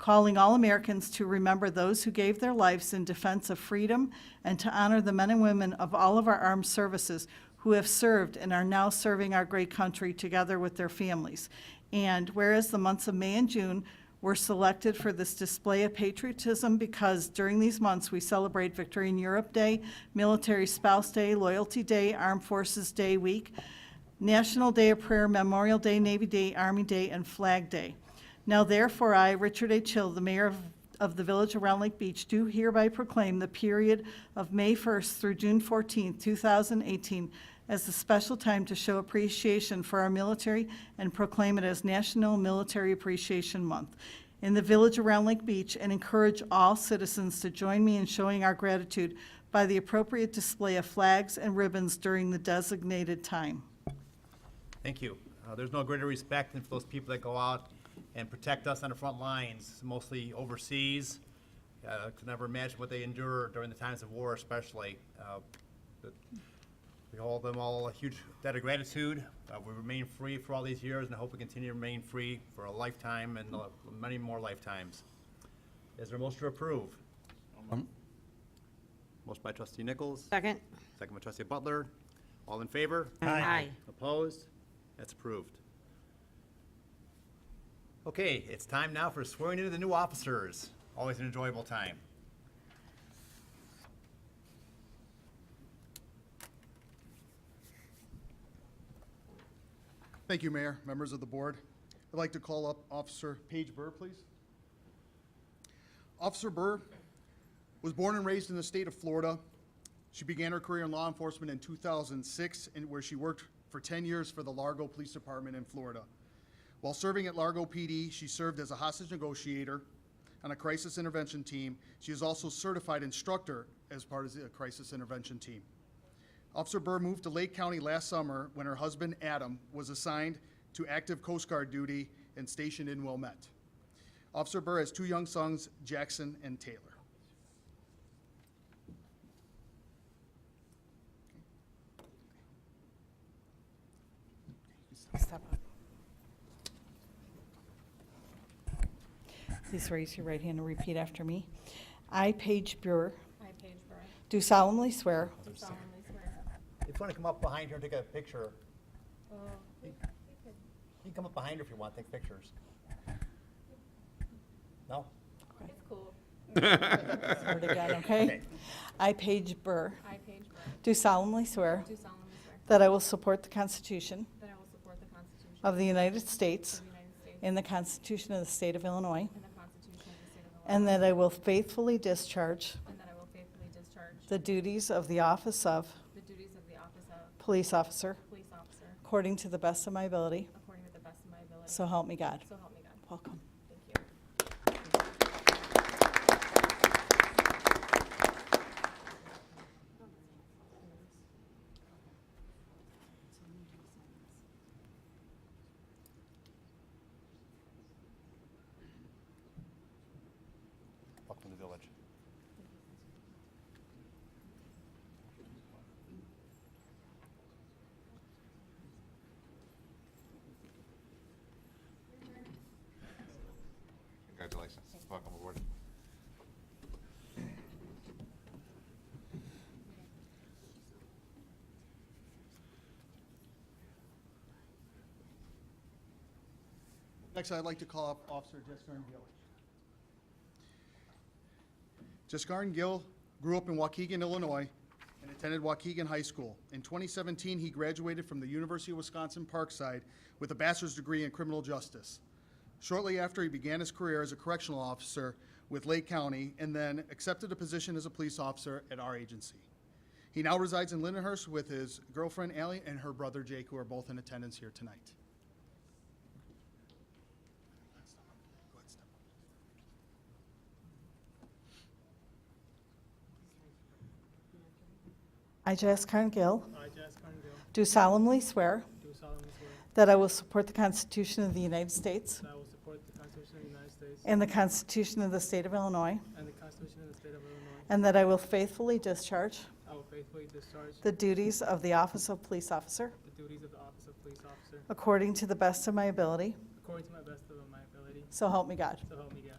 calling all Americans to remember those who gave their lives in defense of freedom and to honor the men and women of all of our armed services who have served and are now serving our great country together with their families. And whereas the months of May and June were selected for this display of patriotism because during these months, we celebrate Victory in Europe Day, Military Spouse Day, Loyalty Day, Armed Forces Day Week, National Day of Prayer, Memorial Day, Navy Day, Army Day, and Flag Day. Now therefore, I, Richard A. Chill, the mayor of, of the village of Round Lake Beach, do hereby proclaim the period of May 1st through June 14th, 2018, as a special time to show appreciation for our military and proclaim it as National Military Appreciation Month in the village around Lake Beach and encourage all citizens to join me in showing our gratitude by the appropriate display of flags and ribbons during the designated time. Thank you. Uh, There's no greater respect than for those people that go out and protect us on the front lines, mostly overseas. Uh, Could never imagine what they endure during the times of war especially. Uh, but We hold them all a huge debt of gratitude. Uh, We remain free for all these years and I hope we continue to remain free for a lifetime and uh, many more lifetimes. Is there a motion to approve? Um, Motion by trustee Nichols, Second? second by trustee Butler. All in favor? Aye. Opposed? That's approved. Okay, it's time now for swearing in of the new officers. Always an enjoyable time. Thank you, Mayor, members of the board. I'd like to call up Officer Paige Burr, please. Officer Burr was born and raised in the state of Florida. She began her career in law enforcement in 2006, and where she worked for 10 years for the Largo Police Department in Florida. While serving at Largo PD, she served as a hostage negotiator on a crisis intervention team. She is also certified instructor as part of the crisis intervention team. Officer Burr moved to Lake County last summer when her husband, Adam, was assigned to active Coast Guard duty and stationed in Wilmette. Officer Burr has two young sons, Jackson and Taylor. Step up. Please raise your right hand and repeat after me. I, Paige Burr, I, Paige Burr, do do solemnly swear solemnly swear. If you want to come up behind her and take a picture, Oh, we- we could- you can come up behind her if you want, take pictures. No? It's cool. swear to God, okay? I, Paige Burr, I, Paige Burr, do solemnly swear do solemnly swear that I will support the Constitution that I will support the Constitution of of the United States the United States and the Constitution of the State of Illinois, and the Constitution of the State of Illinois, and that I will faithfully discharge and that I will faithfully discharge the duties of the office of the duties of the office of police officer police officer according to the best of my ability. according to the best of my ability. So help me God. So help me God. Welcome. Thank you. Welcome to the village. Congratulations. Welcome aboard. Next, I'd like to call up Officer Jessica Gill. Jessica Gill grew up in Waukegan, Illinois, and attended Waukegan High School. In 2017, he graduated from the University of Wisconsin Parkside with a bachelor's degree in criminal justice. Shortly after, he began his career as a correctional officer with Lake County and then accepted a position as a police officer at our agency. He now resides in Lindenhurst with his girlfriend Allie and her brother Jake, who are both in attendance here tonight. I, Jess Karen Gill, I, Jess Carnegie, do solemnly swear do solemnly swear that I will support the Constitution of the United States that I will support the Constitution of the United States and the Constitution of the State of Illinois, and the Constitution of the State of Illinois. and that I will faithfully discharge I will faithfully discharge the duties of the office of police officer the duties of the office of police officer according to the best of my ability. according to my best of my ability, So help me God. so help me God.